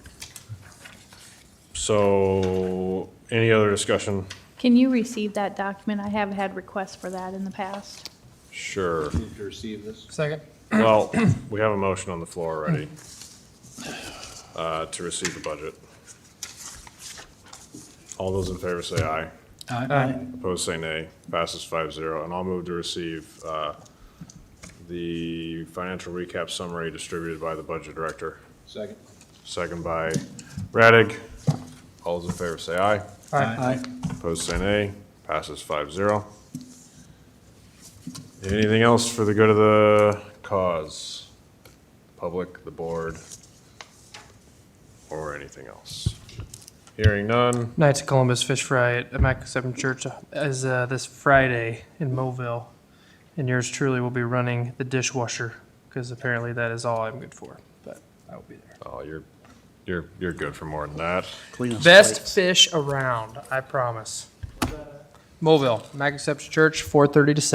So, any other discussion? Can you receive that document? I have had requests for that in the past. Sure. Move to receive this. Second. Well, we have a motion on the floor already uh, to receive the budget. All those in favor say aye. Aye. Opposed, say nay. Passes five zero. And I'll move to receive uh, the financial recap summary distributed by the budget director. Second. Second by Radig. All those in favor say aye. Aye. Opposed, say nay. Passes five zero. Anything else for the good of the cause? Public, the board, or anything else? Hearing none. Knights of Columbus Fish Fry at Immaculate Seven Church is uh, this Friday in Mobile. And yours truly will be running the dishwasher because apparently that is all I'm good for. But I will be there. Oh, you're, you're, you're good for more than that. Best fish around, I promise. Mobile, Immaculate Seven Church, 4:30 to 7.